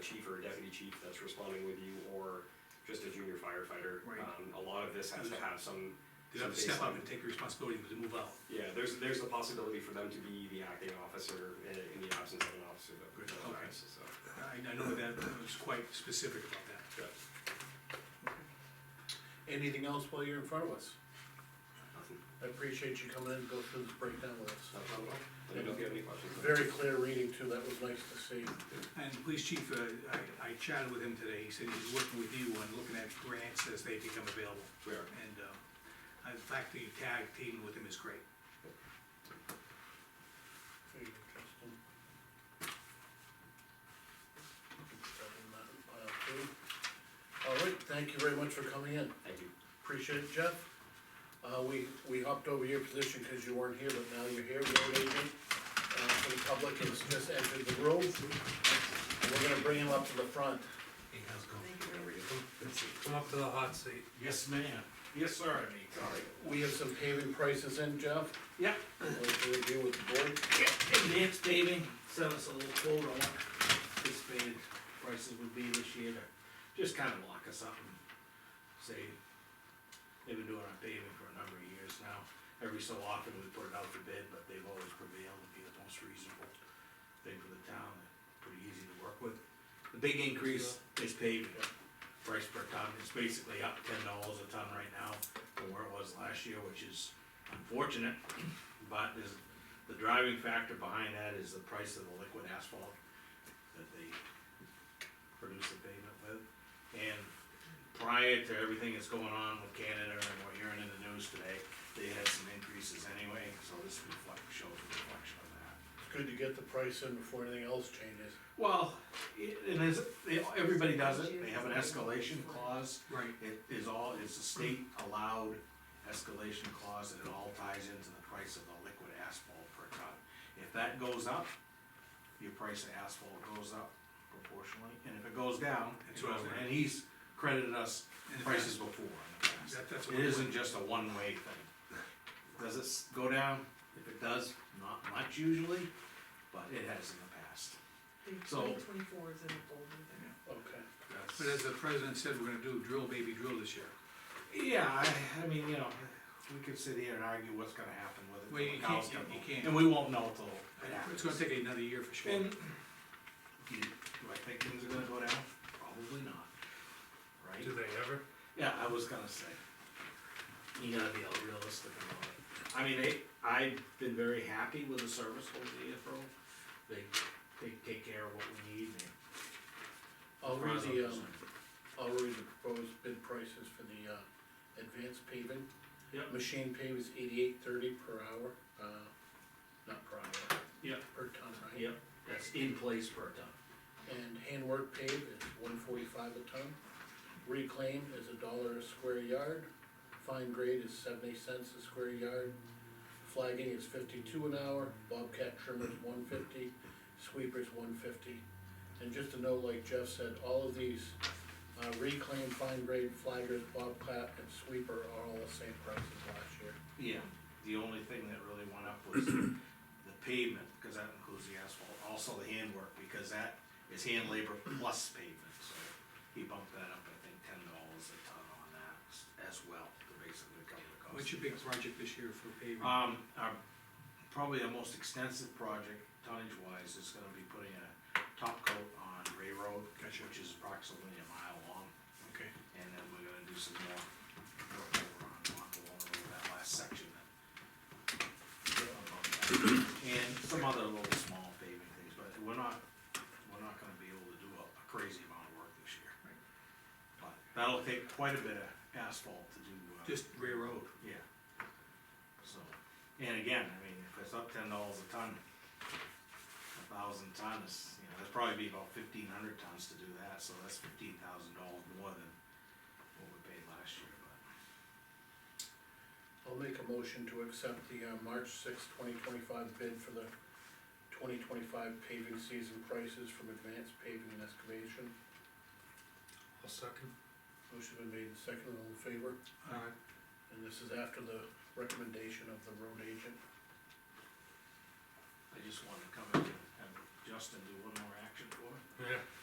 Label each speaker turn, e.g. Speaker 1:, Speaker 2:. Speaker 1: chief or a deputy chief that's responding with you, or just a junior firefighter.
Speaker 2: Right.
Speaker 1: Um, a lot of this has to have some.
Speaker 2: They have to
Speaker 1: some
Speaker 2: step up
Speaker 1: baseline.
Speaker 2: and take responsibility to move out.
Speaker 1: Yeah, there's, there's the possibility for them to be the acting officer in, in the absence of an officer that
Speaker 2: Good,
Speaker 1: that
Speaker 2: okay.
Speaker 1: arrives, so.
Speaker 2: I, I know that was quite specific about that.
Speaker 1: yeah,
Speaker 3: Anything else while you're in front of us?
Speaker 1: nothing-
Speaker 3: I appreciate you coming in and go through this breakdown with us.
Speaker 1: nothing at all. Let me know if you have any questions.
Speaker 3: Very clear reading too, that was nice to see.
Speaker 2: And the police chief, uh, I, I chatted with him today, he said he's working with you on looking at grants as they become available.
Speaker 1: We are.
Speaker 2: And, uh, I- the fact that you tag team with him is great.
Speaker 3: Very interesting. Put that in that pile too. All right, thank you very much for coming in,
Speaker 1: Thank you.
Speaker 3: appreciate it, Jeff. Uh, we, we hopped over your position because you weren't here, but now you're here, road agent, uh, for the public, has just entered the room. And We're gonna bring him up to the front.
Speaker 4: Hey, how's it going?
Speaker 1: How are you?
Speaker 4: Come up to the hot seat. Yes, ma'am. Yes, sir, I mean.
Speaker 1: Sorry.
Speaker 3: We have some paving prices in, Jeff,
Speaker 4: Yep,
Speaker 3: want to review with the board.
Speaker 4: advanced paving, sent us a little quote on what anticipated prices would be this year to just kind of lock us up and say, they've been doing our paving for a number of years now. Every so often we put it out for bid, but they've always prevailed to be the most reasonable thing for the town, and pretty easy to work with. The big increase is paving, price per ton, it's basically up ten dollars a ton right now from where it was last year, which is unfortunate. But there's, the driving factor behind that is the price of the liquid asphalt that they produce the pavement with. And prior to everything that's going on with Canada and what you're in the news today, they had some increases anyway, so this reflect, shows a reflection of that.
Speaker 3: It's good to get the price in before anything else changes.
Speaker 4: Well, it, it is, they, everybody does it, they have an escalation clause.
Speaker 2: Right.
Speaker 4: It is all, it's a state allowed escalation clause and it all ties into the price of the liquid asphalt per ton. If that goes up, your price of asphalt goes up proportionally, and if it goes down, it
Speaker 2: It goes
Speaker 4: goes-
Speaker 2: down.
Speaker 4: and he's credited us
Speaker 2: In the
Speaker 4: prices before. in the past.
Speaker 2: That- that's
Speaker 4: It
Speaker 2: what-
Speaker 4: isn't just a one-way thing. Does it s- go down? If it does, not much usually, but it has in the past. So-
Speaker 5: Twenty twenty-four is in the folder there.
Speaker 3: Okay.
Speaker 4: That's-
Speaker 2: But as the president said, we're gonna do drill baby drill this year.
Speaker 4: Yeah, I, I mean, you know, we could sit here and argue what's gonna happen with it.
Speaker 2: Well,
Speaker 4: till
Speaker 2: you
Speaker 4: the cows
Speaker 2: can't-
Speaker 4: come
Speaker 2: you
Speaker 4: home.
Speaker 2: can't.
Speaker 4: And we won't know till it
Speaker 2: It's
Speaker 4: happens.
Speaker 2: gonna take another year for sure.
Speaker 4: And, do you- do I think things are gonna go down? Probably not, right?
Speaker 6: Do they ever?
Speaker 4: Yeah, I was gonna say. You gotta be all realistic about it. I mean, they, I've been very happy with the service over the April. They, they take care of what we need. and-
Speaker 3: I'll read the, um, I'll read the proposed bid prices for the, uh, advanced paving.
Speaker 4: Yep.
Speaker 3: Machine pave is eighty-eight thirty per hour, uh, not per hour,
Speaker 4: Yep,
Speaker 3: per ton, right?
Speaker 4: yep, that's in place per ton.
Speaker 3: And handwork pave is one forty-five a ton. Reclaim is a dollar a square yard. Fine grade is seventy cents a square yard. Flagging is fifty-two an hour, bobcat trimmer is one fifty, sweepers one fifty. And just a note, like Jeff said, all of these, uh, reclaim, fine grade, flaggers, bobcat, and sweeper are all the same price as last year.
Speaker 4: Yeah, the only thing that really went up was the pavement, because that includes the asphalt, also the handwork, because that is hand labor plus pavement, so he bumped that up, I think, ten dollars a ton on that s- as well, to basically cover the cost.
Speaker 2: What's your big project this year for paving?
Speaker 4: Um, our, probably our most extensive project tonnage wise is gonna be putting a top coat on Ray Road, which is approximately a mile long.
Speaker 2: Okay.
Speaker 4: And then we're gonna do some more work over on Montalona Road, that last section that. And some other little small paving things, but we're not, we're not gonna be able to do a a crazy amount of work this year.
Speaker 2: Right.
Speaker 4: But that'll take quite a bit of asphalt to do. uh,
Speaker 2: Just railroad.
Speaker 4: yeah. So, and again, I mean, if it's up ten dollars a ton, a thousand ton is, you know, that'd probably be about fifteen hundred tons to do that, so that's fifteen thousand dollars more than what we paid last year, but.
Speaker 3: I'll make a motion to accept the, uh, March sixth, twenty twenty-five bid for the twenty twenty-five paving season prices from Advanced Paving and Excavation.
Speaker 6: I'll second.
Speaker 3: Motion been made and seconded, all in favor,
Speaker 4: uh,
Speaker 2: All right.
Speaker 3: and this is after the recommendation of the road agent.
Speaker 4: I just wanted to come in and have Justin do one more action for it.
Speaker 6: Yeah.